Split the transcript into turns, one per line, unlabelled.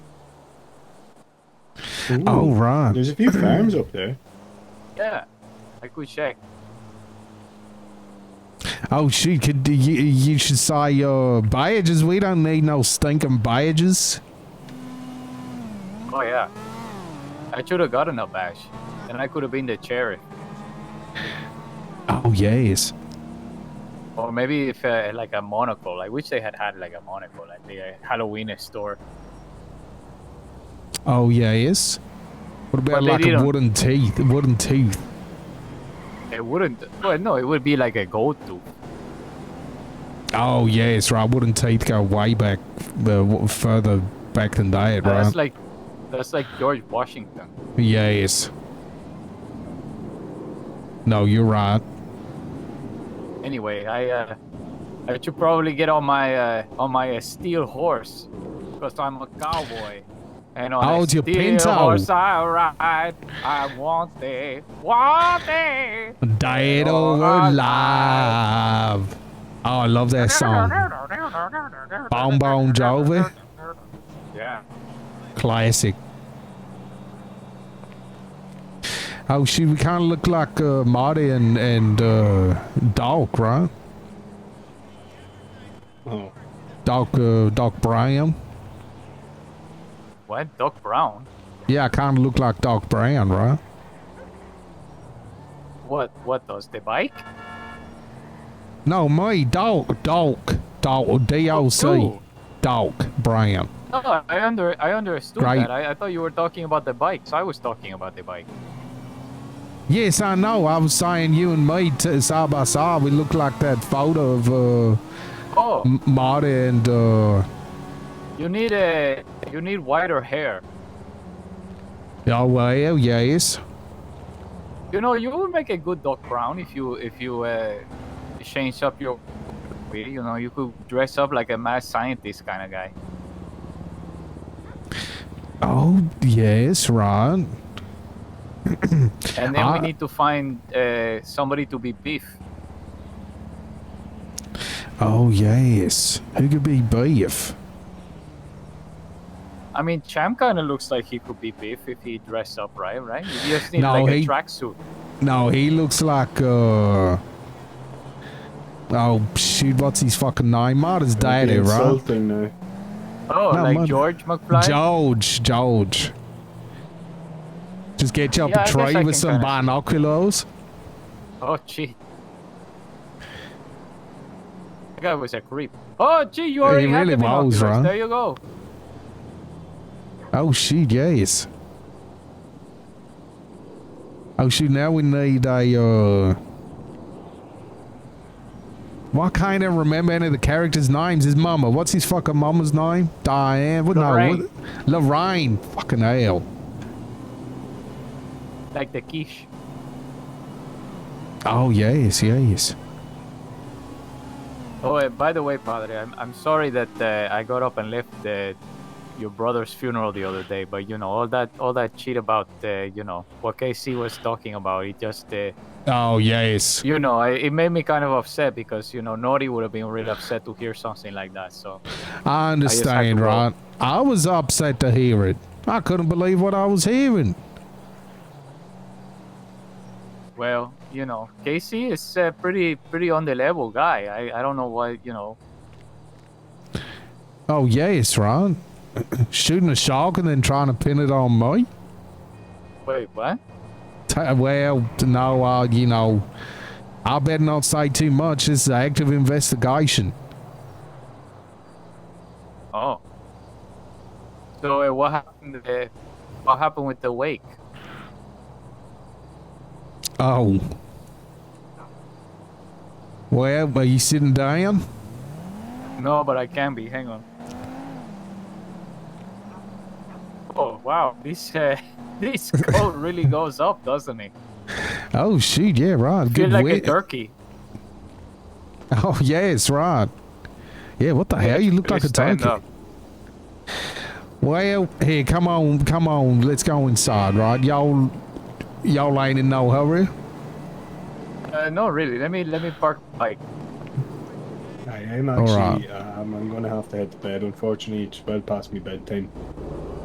Ooh,
Oh, right.
There's a few farms up there.
Yeah, I could check.
Oh, shoot. Could, you, you should say uh, badges. We don't need no stinking badges.
Oh yeah, I should have gotten a badge, and I could have been the cherry.
Oh, yes.
Or maybe if uh, like a monocle. I wish they had had like a monocle, like the uh, Halloween store.
Oh, yes. What about
But they
like a
didn't.
wooden teeth? A wooden tooth.
It wouldn't. Well, no, it would be like a gold tooth.
Oh, yes, right. Wooden teeth go way back, uh, w- further back than that,
Uh,
right?
That's like that's like George Washington.
yes. No, you're right.
Anyway, I uh, I should probably get on my uh, on my uh, steel horse because I'm a cowboy. And on
Oh,
a
it's your
steel
pinto.
horse I ride, I want it, want it.
Dead
Oh,
or alive. Oh, I love that song. Bon Bon Jovi,
Yeah.
classic. Oh, shoot, we kind of look like uh, Marty and, and uh, Doc, right?
Oh,
Doc, uh, Doc Brown.
What? Doc Brown?
Yeah, I kind of look like Doc Brown, right?
What? What does the bike?
No, me, Doc, Doc, Doc, D-O-C,
Dude.
Doc Brown.
No, Oh, I under I understood
Right.
that. I, I thought you were talking about the bike, so I was talking about the bike.
Yes, I know. I was saying you and me t- side by side. We look like that photo of uh,
Oh,
M- Marty and uh,
you need a you need wider hair.
oh well, yes.
You know, you would make a good Doc Brown if you if you uh, change up your career. You know, you could dress up like a mad scientist kind of guy.
Oh yes, right.
And then
Ah.
we need to find uh, somebody to be beef.
Oh yes. Who could be beef?
I mean, Champ kind of looks like he could be beef if he dressed up right, right? You just need
No,
like
he-
a tracksuit.
No, he looks like uh. Oh shoot! What's his fucking name? Marty's
that'd be
daddy, right?
Insulting uh, now.
Oh,
No,
like
man.
George McFly.
George, George. Just get you up
Yeah, I
a
guess I
tree
can
with some
kinda-
binoculars.
Oh, gee. That guy was a creep. Oh, gee, you
He
already have
really
the
was,
binoculars.
right?
There you go.
Oh shoot, yes. Oh shoot, now we need a uh Why can't I remember any of the characters' names? His mama. What's his fucking mama's name? Diane. What no
Lorraine.
what Lorraine. Fucking hell.
Like the quiche.
Oh yes, yes.
Oh, uh, by the way, Padre, I'm, I'm sorry that uh, I got up and left uh, your brother's funeral the other day, but you know all that all that shit about uh, you know what KC was talking about. It just uh,
Oh yes.
you know I, it made me kind of upset because you know Nori would have been really upset to hear something like that. So
I understand,
roll.
right? I was upset to hear it. I couldn't believe what I was hearing.
well, you know Casey is a pretty pretty on the level guy. I, I don't know why you know
Oh yes, right? Shooting a shark and then trying to pin it on me?
wait what.
Ta well, no, uh, you know, I better not say too much. This is an active investigation.
Oh. So uh, what happened? Uh, what happened with the wake?
Oh. Well, are you sitting down?
No, but I can be. Hang on. Oh wow, this uh, this coat really goes up, doesn't it?
Oh, shoot, yeah, right.
Feel
Good
like a
wit.
turkey.
Oh, yes, right. Yeah, what the hell? You look like a
Stand
turkey.
up.
Well, here, come on, come on. Let's go inside, right? Y'all, y'all ain't in no hurry.
Uh, no, really. Let me let me park the bike.
I am
All right.
uh, actually. Um, I'm gonna have to head to bed. Unfortunately, it's well past my bedtime.